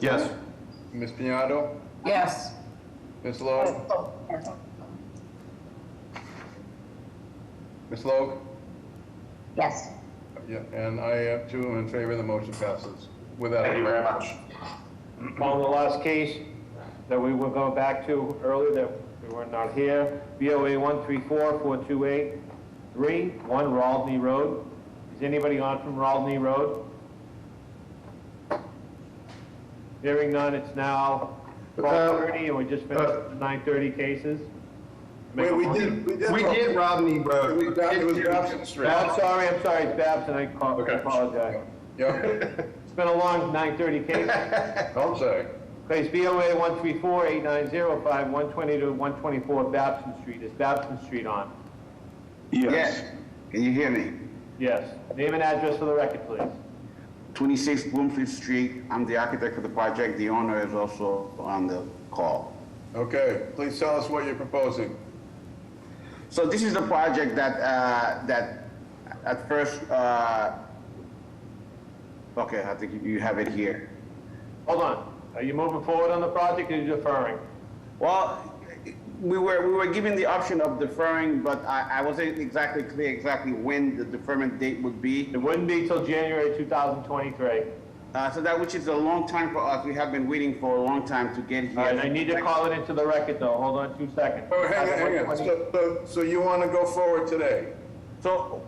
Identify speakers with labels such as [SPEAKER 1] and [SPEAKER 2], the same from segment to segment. [SPEAKER 1] Yes.
[SPEAKER 2] Ms. Piñato?
[SPEAKER 3] Yes.
[SPEAKER 2] Ms. Logue? Ms. Logue?
[SPEAKER 3] Yes.
[SPEAKER 2] Yeah, and I have two in favor, the motion passes. Without
[SPEAKER 1] Thank you very much.
[SPEAKER 4] On the last case that we were going back to earlier that we were not here, BOA one three four four two eight three one Raldney Road. Is anybody on from Raldney Road? Hearing none, it's now twelve thirty and we just finished the nine thirty cases.
[SPEAKER 2] Wait, we did, we did.
[SPEAKER 1] We did Rodney Road.
[SPEAKER 2] We got- It was Dobson
[SPEAKER 4] Oh,
[SPEAKER 2] Street.
[SPEAKER 4] I'm sorry, I'm sorry, it's Babson, I ca-
[SPEAKER 1] Okay.
[SPEAKER 4] apologize.
[SPEAKER 2] Yeah,
[SPEAKER 4] It's been a long nine thirty case.
[SPEAKER 2] I'm sorry.
[SPEAKER 4] Case BOA 134-890-5 120 to 124 Babson Street. Is Babson Street on?
[SPEAKER 5] Yes. Can you hear me?
[SPEAKER 4] Yes. Name and address for the record, please.
[SPEAKER 5] 26 Bloomfield Street. I'm the architect for the project. The owner is also on the call.
[SPEAKER 2] Okay, please tell us what you're proposing.
[SPEAKER 5] So this is the project that, uh, that at first, uh, okay, I think you- you have it here.
[SPEAKER 4] Hold on. Are you moving forward on the project or are you deferring?
[SPEAKER 5] Well, we were, we were given the option of deferring, but I, I wasn't exactly clear exactly when the deferment date would be.
[SPEAKER 4] It wouldn't be till January 2023.
[SPEAKER 5] Uh, so that, which is a long time for us. We have been waiting for a long time to get here.
[SPEAKER 4] All right, I need to call it into the record though. Hold on two seconds.
[SPEAKER 2] Oh, hang on, hang on. So, so- so you want to go forward today?
[SPEAKER 5] So,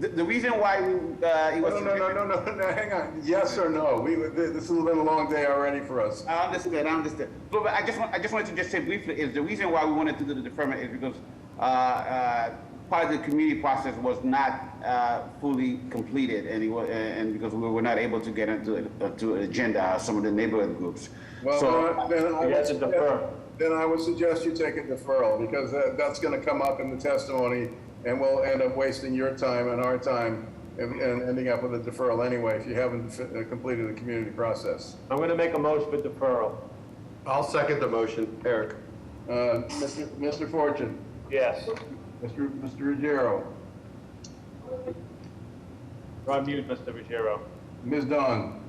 [SPEAKER 5] the, the reason why we, uh, it
[SPEAKER 2] No,
[SPEAKER 5] was.
[SPEAKER 2] no, no, no, no, no, hang on. Yes or no? We, this has been a long day already for us.
[SPEAKER 5] I understand, I understand. But, but I just want, I just wanted to just say briefly, is the reason why we wanted to do the deferment is because, uh, uh, part of the community process was not, uh, fully completed and it wa, and because we were not able to get into, it- uh, to agenda, some of the neighborhood groups. So,
[SPEAKER 2] Well, uh, then I
[SPEAKER 4] You
[SPEAKER 2] would
[SPEAKER 4] have to defer.
[SPEAKER 2] suggest, then I would suggest you take a deferral, because that, that's gonna come up in the testimony, and we'll end up wasting your time and our time, and, and ending up with a deferral anyway, if you haven't fi- uh, completed the community process.
[SPEAKER 4] I'm going to make a motion for deferral.
[SPEAKER 1] I'll second the motion, Eric.
[SPEAKER 2] Uh, Mr. Mr. Fortune,
[SPEAKER 4] Yes.
[SPEAKER 2] Mr. Mr. Ruggiero,
[SPEAKER 4] You're on mute, Mr. Ruggiero.
[SPEAKER 2] Ms. Dunn,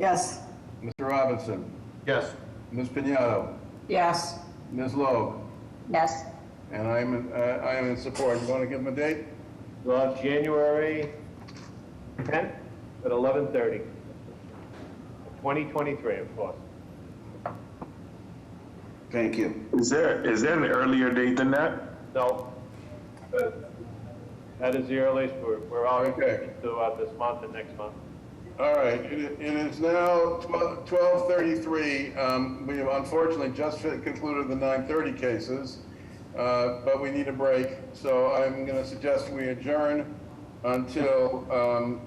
[SPEAKER 3] Yes.
[SPEAKER 2] Mr. Robinson,
[SPEAKER 1] Yes.
[SPEAKER 2] Ms. Piñato,
[SPEAKER 3] Yes.
[SPEAKER 2] Ms. Logue,
[SPEAKER 3] Yes.
[SPEAKER 2] and I'm, in- uh, I am in support. You wanna give them a date?
[SPEAKER 4] We'll have January 10th at 11:30. 2023, of course.
[SPEAKER 5] thank you.
[SPEAKER 6] Is there, is there an earlier date than that?
[SPEAKER 4] No. That is the earliest, we're, we're already
[SPEAKER 2] Okay.
[SPEAKER 4] throughout this month and next month.
[SPEAKER 2] All right, it it is now twelve thirty-three. Um, We have unfortunately just fi- concluded the nine thirty cases, uh, but we need a break, so I'm going to suggest we adjourn until um,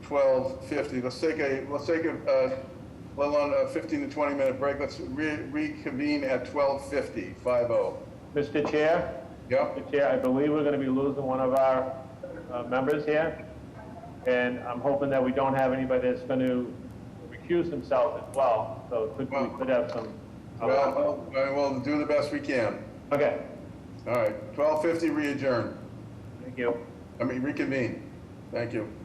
[SPEAKER 2] twelve fifty. Let's take a, let's take a, uh, let alone a fifteen to twenty minute break. Let's re- reconvene at twelve fifty, five oh.
[SPEAKER 4] Mr. Chair,
[SPEAKER 2] Yep,
[SPEAKER 4] Mr. Chair, I believe we're gonna be losing one of our, uh, members here. And I'm hoping that we don't have anybody that's gonna recuse himself as well, so could, we could have some.
[SPEAKER 2] well, well, we'll do the best we can.
[SPEAKER 4] Okay,
[SPEAKER 2] All right, twelve fifty, re-adjourn,
[SPEAKER 4] thank you.
[SPEAKER 2] I mean reconvene. Thank you.